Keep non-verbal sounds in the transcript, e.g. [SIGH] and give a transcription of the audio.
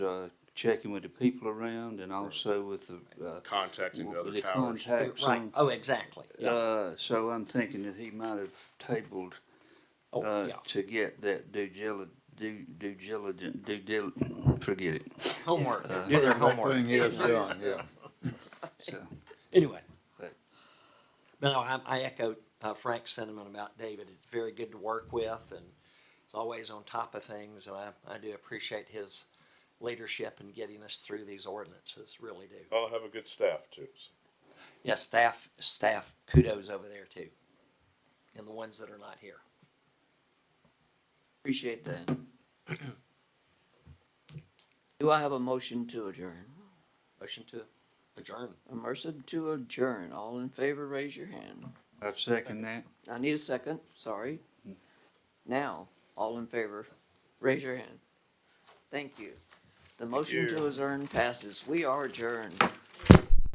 uh, checking with the people around and also with the, uh, contacting the other the towers. contacts. Right, on- oh, exactly, yeah, Uh, so I'm thinking that he might have tabled, oh, uh, yeah, to get that due dili- due, due diligent, due dil, forget it. homework, Uh, do their That [LAUGHS] homework, thing is done, yeah. So, anyway. But- No, I, I echo uh, Frank's sentiment about David, it's very good to work with, and he's always on top of things, and I, I do appreciate his leadership in getting us through these ordinances, really do. I'll have a good staff too. so. Yeah, staff, staff kudos over there too. And the ones that are not here. Appreciate that. Do I have a motion to adjourn? Motion to adjourn. A motion to adjourn. All in favor, raise your hand. I second that. I need a second, sorry. Now, all in favor, raise your hand. Thank you. The motion you. to adjourn passes. We are adjourned.